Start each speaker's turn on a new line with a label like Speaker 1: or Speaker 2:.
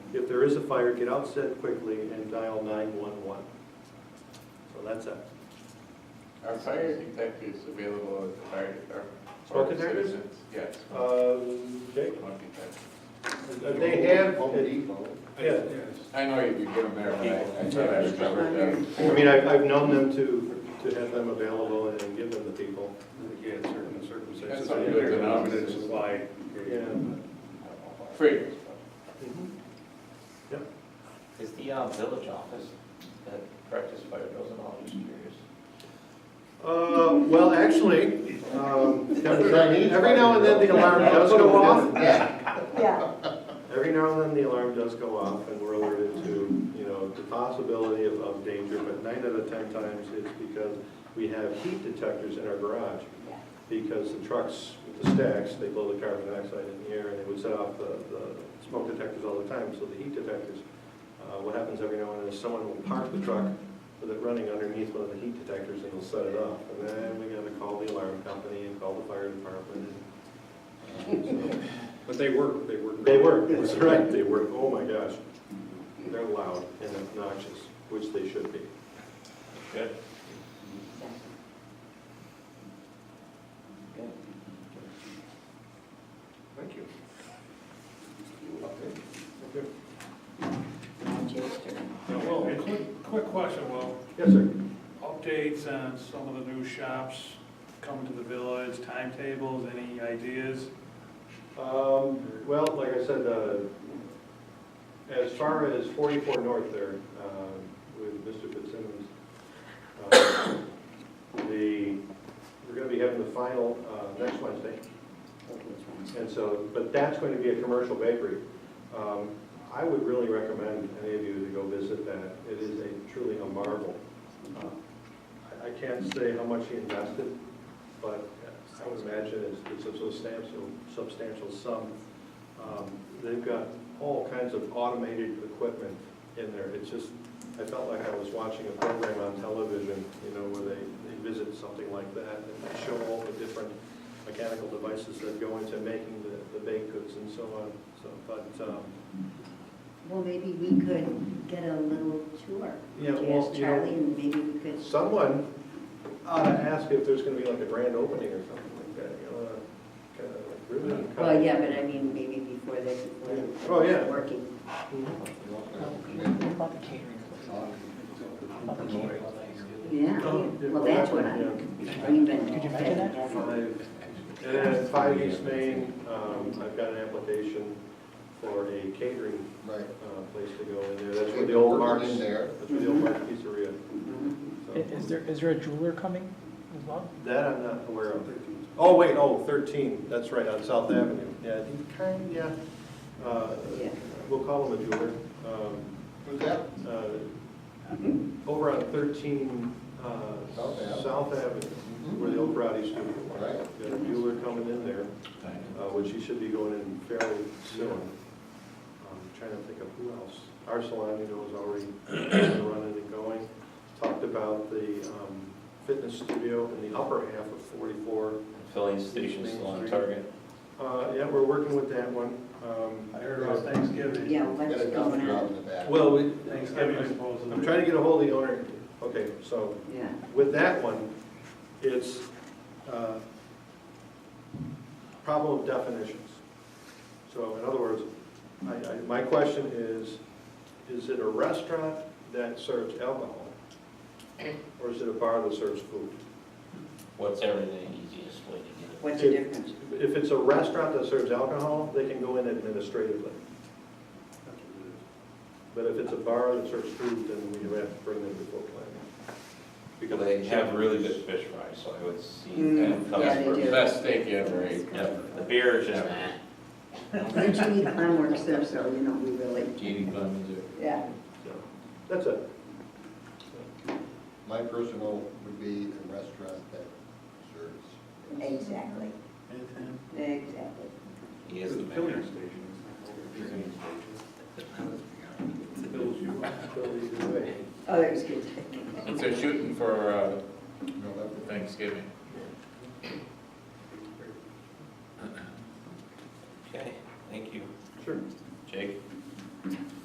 Speaker 1: if there is a fire, get out set quickly and dial 911. So that's it.
Speaker 2: Our fire detectors available at the fire department.
Speaker 1: Smoke
Speaker 2: Or
Speaker 1: detectors?
Speaker 2: citizens, Yes.
Speaker 1: Um, Jake?
Speaker 2: smoke detectors.
Speaker 1: They have,
Speaker 3: Home Depot.
Speaker 1: yeah,
Speaker 2: I know you could get them there, but I- I thought I remembered that.
Speaker 1: I mean, I've, I've known them to, to have them available and give them to people.
Speaker 3: Yeah, in certain circumstances.
Speaker 2: That's not good
Speaker 3: they're
Speaker 2: enough.
Speaker 3: limited Supply.
Speaker 2: Free.
Speaker 1: Mm-hmm.
Speaker 4: Is the uh, village office that practice fire drills and all, just curious?
Speaker 1: Uh, well, actually, um, every now and then the alarm does go off.
Speaker 5: Yeah,
Speaker 1: Every now and then the alarm does go off and we're alerted to, you know, the possibility of, of danger, but nine out of ten times it's because we have heat detectors in our garage. Because the trucks, with the stacks, they blow the carbon dioxide in the air and they would set off the, the smoke detectors all the time, so the heat detectors. Uh, what happens every now and then is someone will park the truck with it running underneath one of the heat detectors and they'll set it off. And then we gotta call the alarm company and call the fire department and, uh, so.
Speaker 3: But they work, they work.
Speaker 1: They were, that's right, they were, oh my gosh. They're loud and obnoxious, which they should be.
Speaker 4: Good.
Speaker 3: Thank you.
Speaker 5: Now Jay's turn.
Speaker 6: Now, Will, quick, quick question, Will.
Speaker 1: Yes, sir.
Speaker 6: Updates on some of the new shops coming to the village, timetables, any ideas?
Speaker 1: Um, well, like I said, uh, as far as forty-four north there, um, with Mr. Fitzsimmons, uh, the, we're gonna be having the final, uh, next Wednesday. And so, but that's going to be a commercial bakery. Um, I would really recommend any of you to go visit that. It is a truly a marvel. Uh, I I can't say how much he invested, but I would imagine it's- it's a substantial, substantial sum. Um, They've got all kinds of automated equipment in there. It's just, I felt like I was watching a program on television, you know, where they, they visit something like that and they show all the different mechanical devices that go into making the, the baked goods and so on, so, but, um,
Speaker 5: Well, maybe we could get a little tour.
Speaker 1: Yeah,
Speaker 5: Could
Speaker 1: well,
Speaker 5: ask
Speaker 1: you know-
Speaker 5: Charlie and maybe we could,
Speaker 1: someone ought to ask if there's gonna be like a grand opening or something like that, you know, kind of like ribbon cutting.
Speaker 5: well, yeah, but I mean, maybe before they, before they.
Speaker 1: Oh, yeah.
Speaker 5: Working.
Speaker 1: Mhm.
Speaker 5: Yeah,
Speaker 1: Oh, yeah,
Speaker 5: well, that's what I,
Speaker 1: yeah.
Speaker 5: I've been. Could you imagine that?
Speaker 1: Five, and then five East Main, um, I've got an application for a catering,
Speaker 3: Right.
Speaker 1: uh, place to go in there, that's where the old Mark's,
Speaker 3: In
Speaker 1: that's
Speaker 3: there.
Speaker 1: where the old Mark's Pizzeria.
Speaker 5: Mm-hmm.
Speaker 7: I- Is there, is there a jeweler coming as well?
Speaker 1: That I'm not aware of. Oh, wait, oh, 13, that's right, on South Avenue. Yeah, he kind, yeah, uh,
Speaker 5: Yeah.
Speaker 1: we'll call him a jeweler. Um,
Speaker 3: Who's that?
Speaker 1: uh, Over on 13, uh,
Speaker 3: South Ave.
Speaker 1: South Avenue, where the old karate studio was.
Speaker 3: Right.
Speaker 1: Got a jeweler coming in there, uh, which he should be going in fairly soon. I'm Trying to think of who else. Our salon, you know, is already running and going. Talked about the um, fitness studio in the upper half of 44.
Speaker 4: Filling station's still on target.
Speaker 1: Uh, Yeah, we're working with that one. Um,
Speaker 6: I heard about Thanksgiving.
Speaker 5: Yeah,
Speaker 3: Got
Speaker 5: what's
Speaker 3: a
Speaker 5: going
Speaker 3: dumpster out
Speaker 5: on?
Speaker 3: in the back.
Speaker 1: Well, we-
Speaker 6: Thanksgiving is
Speaker 1: I'm-
Speaker 6: supposed to
Speaker 1: I'm
Speaker 6: be.
Speaker 1: trying to get a hold of the owner. Okay, so
Speaker 5: Yeah,
Speaker 1: with that one, it's uh, problem of definitions. So in other words, I- I- my question is, is it a restaurant that serves alcohol? Or is it a bar that serves food?
Speaker 4: What's ever the easiest way to get it?
Speaker 5: what's the difference?
Speaker 1: If it's a restaurant that serves alcohol, they can go in administratively. But if it's a bar that serves food, then we have to bring them before planning.
Speaker 4: Because they have really good fish fries, so I would see
Speaker 5: Mm,
Speaker 4: that comes
Speaker 5: yeah, they
Speaker 4: first.
Speaker 5: do.
Speaker 2: Best steak you ever ate.
Speaker 4: Yep, the beer is just, eh,
Speaker 5: But you need homework, so, so, you know, we really,
Speaker 4: Jeannie Clemens or.
Speaker 5: yeah.
Speaker 1: So, That's it.
Speaker 3: My personal would be a restaurant that serves.
Speaker 5: Exactly, exactly.
Speaker 4: He is the mayor.
Speaker 1: Filling stations. Fills you up, fills you away.
Speaker 5: Oh, that was good.
Speaker 2: If they're shooting for uh,
Speaker 3: No, that would-
Speaker 2: Thanksgiving.